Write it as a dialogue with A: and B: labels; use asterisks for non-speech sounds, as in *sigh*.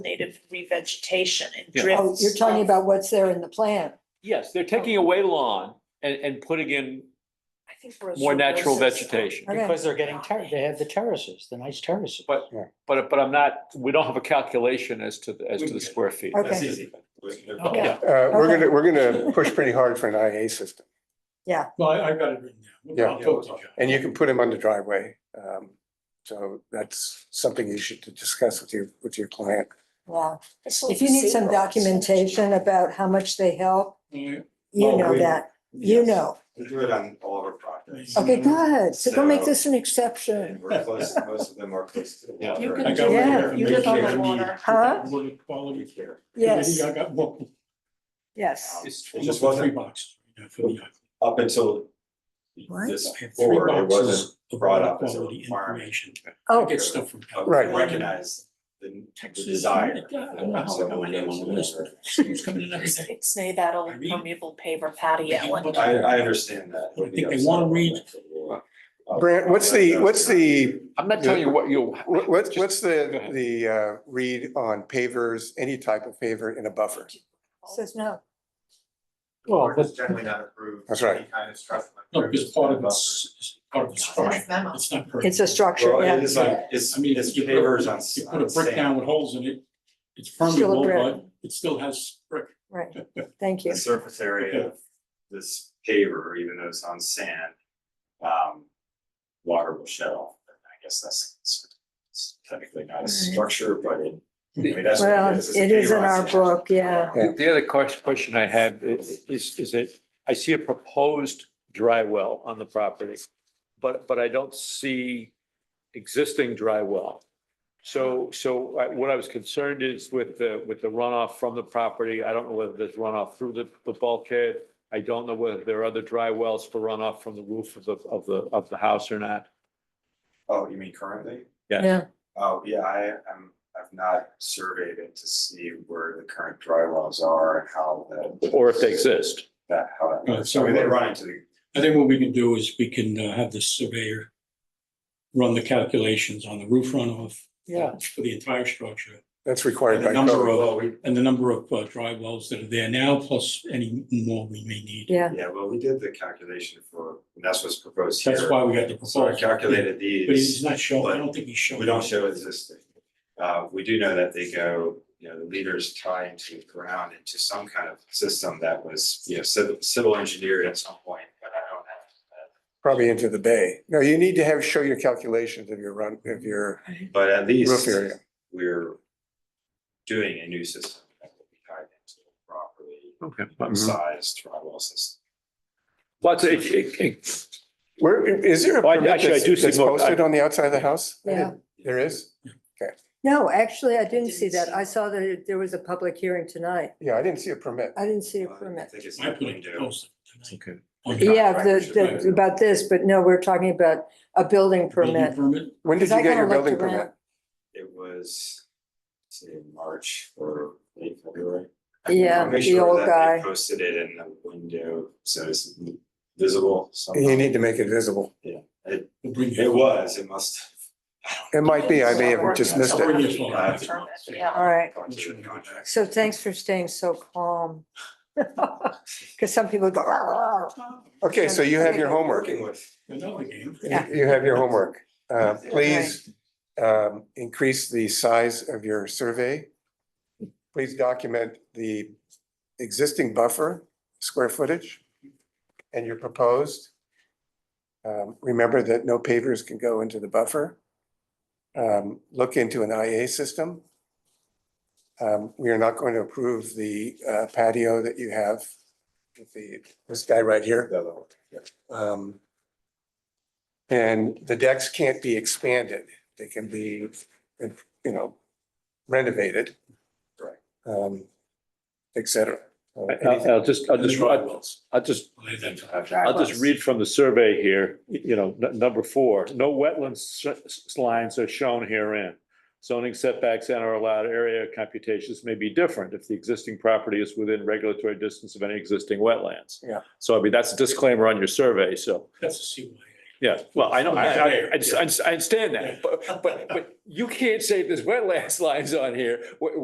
A: native revegetation and
B: Yeah.
A: drifts.
C: Oh, you're talking about what's there in the plan.
B: Yes, they're taking away lawn and, and putting in
A: I think for a
B: more natural
A: roses.
B: vegetation.
C: Okay.
D: Because they're getting, ter- they have the terraces, the nice terraces.
B: But- But, but I'm not, we don't have a calculation as to, the as to the square feet.
C: Okay.
B: That's easy.
E: Oh,
D: Okay.
F: Uh, we're
C: Okay.
F: gonna, we're gonna push pretty hard for an IA system,
E: Well, I, I've got it written down.
F: Yeah.
E: I'll talk to you.
F: and you can put them on the driveway. Um, so that's something you should discuss with your, with your client.
C: Wow.
A: It's
C: If you need some
A: like-
C: documentation about how much they help, you
G: Oh,
C: know
G: we-
C: that, you
G: Yes.
C: know.
G: We do it on all of our
E: *laughs*
G: projects.
C: Okay, good. So don't make
G: So-
C: this an
G: And
C: exception.
G: We're close, most of them are close to the
B: Yeah.
G: water.
A: You
E: I
A: can
E: got
A: do,
C: Yeah,
E: whatever
A: you live on
E: Medicare
A: the water.
C: Huh?
E: What a quality
G: We care.
C: Yes,
E: I got one,
C: yes.
B: It's-
G: It just
E: one for three
G: wasn't
E: boxes. yeah, for the-
G: up until
C: What?
G: this
E: I have three
G: board, it wasn't
E: boxes of
G: brought
E: water
G: up as a
E: quality
G: requirement.
E: information. I
C: Oh,
E: get stuff from.
G: uh,
F: Right.
G: Recognize the the
E: Texas,
G: desire.
E: yeah, I don't know how I got my name on the list. Who's coming in every day?
A: It's nay that old
E: Irene?
A: permeable paver
C: Oh,
A: patio and
G: I, I understand that. would be
E: I think they
G: upset
E: wanna
G: about
E: read-
G: that. Uh,
F: Brant, what's the, what's the,
B: I'm not telling you what you.
F: what- what's,
B: just-
F: what's
B: go
F: the,
B: ahead.
F: the, uh, read on pavers, any type of paver in a buffer?
C: Oh, says no.
G: The board is generally not approved.
F: That's right.
G: Any kind of structural
E: No, because part of
G: improvements.
E: it's, it's part of the structure.
A: memo.
E: It's not. perfect.
C: It's a structure,
G: Well, it
C: yeah.
G: is like, it's,
E: I mean,
G: it's
E: if you put-
G: pavers on.
E: You
G: on
E: put a brick
G: sand.
E: down with holes in it, it's
C: Still a
E: permeable,
C: brick.
E: but it still has brick.
C: Right, thank
G: *laughs*
C: you.
G: the surface area of this paver, even though it's on sand, um, water will shed off. And I guess that's it's technically not a structure, but it, I mean, that's what
C: Well,
G: it is. It's a
C: it is
G: paver
C: in
G: on
C: our
G: sand.
C: book, yeah.
F: Yeah.
B: The other question, question I have i- is, is that I see a proposed dry well on the property, but, but I don't see existing dry well. So, so I- what I was concerned is with the, with the runoff from the property. I don't know whether there's runoff through the, the bulkhead. I don't know whether there are other dry wells for runoff from the roof of the, of the, of the house or not.
G: Oh, you mean currently?
B: Yeah.
C: Yeah,
G: Oh, yeah, I am, I've not surveyed it to see where the current dry wells are and how that.
B: Or if they exist.
G: That, how
C: Oh,
E: Uh,
G: that,
E: so-
G: so they run into the
E: I think what we can do is we can uh, have the surveyor run the calculations on the roof runoff.
B: Yeah.
E: For the entire structure
F: That's required
E: And the
F: by
E: number
F: code.
E: of-
G: Well, we,
E: and the number of uh, dry wells that are there now, plus any more we may need.
C: yeah.
G: yeah, well, we did the calculation for, and that's what's proposed here.
E: That's why we got the
G: So I
E: proposal.
G: calculated these.
E: But he's not showing, I don't think he's showing.
G: We don't show existing. Uh, we do know that they go, you know, the leaders tie into the ground into some kind of system that was, you know, civil, civil engineered at some point, but I don't have.
F: Probably into the bay. No, you need to have, show your calculations of your run, of your
G: that. But at
F: roof
G: least
F: area.
G: we're doing a new system that will be tied into a properly
B: Okay.
G: sized drywall system.
B: Lots of, it- it- it-
F: Where, is there a
B: Oh, I-
F: permit
B: actually, I do
F: that's
B: see
F: that's
B: more- I-
F: posted on the outside of the house? I
C: Yeah.
F: didn't- There is?
C: No, actually, I didn't see that. I saw that it- there was a public hearing tonight.
F: Yeah, I didn't see a permit.
C: I didn't see a
G: Uh, I
C: permit.
G: think it's
E: I put
G: definitely
E: it
G: due.
E: posted tonight.
B: okay.
E: On the
C: Yeah,
G: Contractors,
C: the,
E: right.
C: the, about this, but no, we're talking about a building
E: building
C: permit.
E: Permit,
F: When did
C: Because
F: you
C: I
F: get your
C: kinda looked
F: building
C: around.
F: permit?
G: It was, say, March or late February.
C: Yeah,
G: Make
C: the
G: sure
C: old
G: that
C: guy.
G: they Posted it in the window, so it's visible
F: You
G: somehow.
F: need to make it visible.
E: we'll bring you.
G: It was, it must.
F: It might be, I may have just missed
E: Or
F: it.
E: you just-
G: I have to-
A: Yeah.
C: All right.
G: Going through the contracts.
C: So thanks for staying so calm. *laughs* Because some people go, "Ah, ah, ah."
F: Okay, so you have your homework.
G: Working with.
E: Another game.
F: You
C: Yeah.
F: you have your homework. Uh, please, um, increase the size of your survey. Please document the existing buffer, square footage, and your proposed. Um, remember that no pavers can go into the buffer. Um, look into an IA system. Um, we are not going to approve the uh, patio that you have with the, this guy right here.
G: the other one. Yeah.
F: Um, And the decks can't be expanded. They can be, you know, renovated.
G: Right.
F: Um, et cetera. Uh,
B: I-
F: anything-
B: I'll I'll just, I'll just,
E: Dry wells.
B: I'll just
E: I think that's-
B: I'll just read from the survey here, y- you know, n- number four, no wetlands s- s- lines are shown herein. Zoning setbacks and our allowed area computations may be different if the existing property is within regulatory distance of any existing wetlands.
F: Yeah.
B: So I mean, that's a disclaimer on your survey, so,
E: That's a CYA.
B: yeah, well, I know, I, I, I just- I just- I understand that, but, but, but you can't say there's wetlands *laughs* lines on here, wh-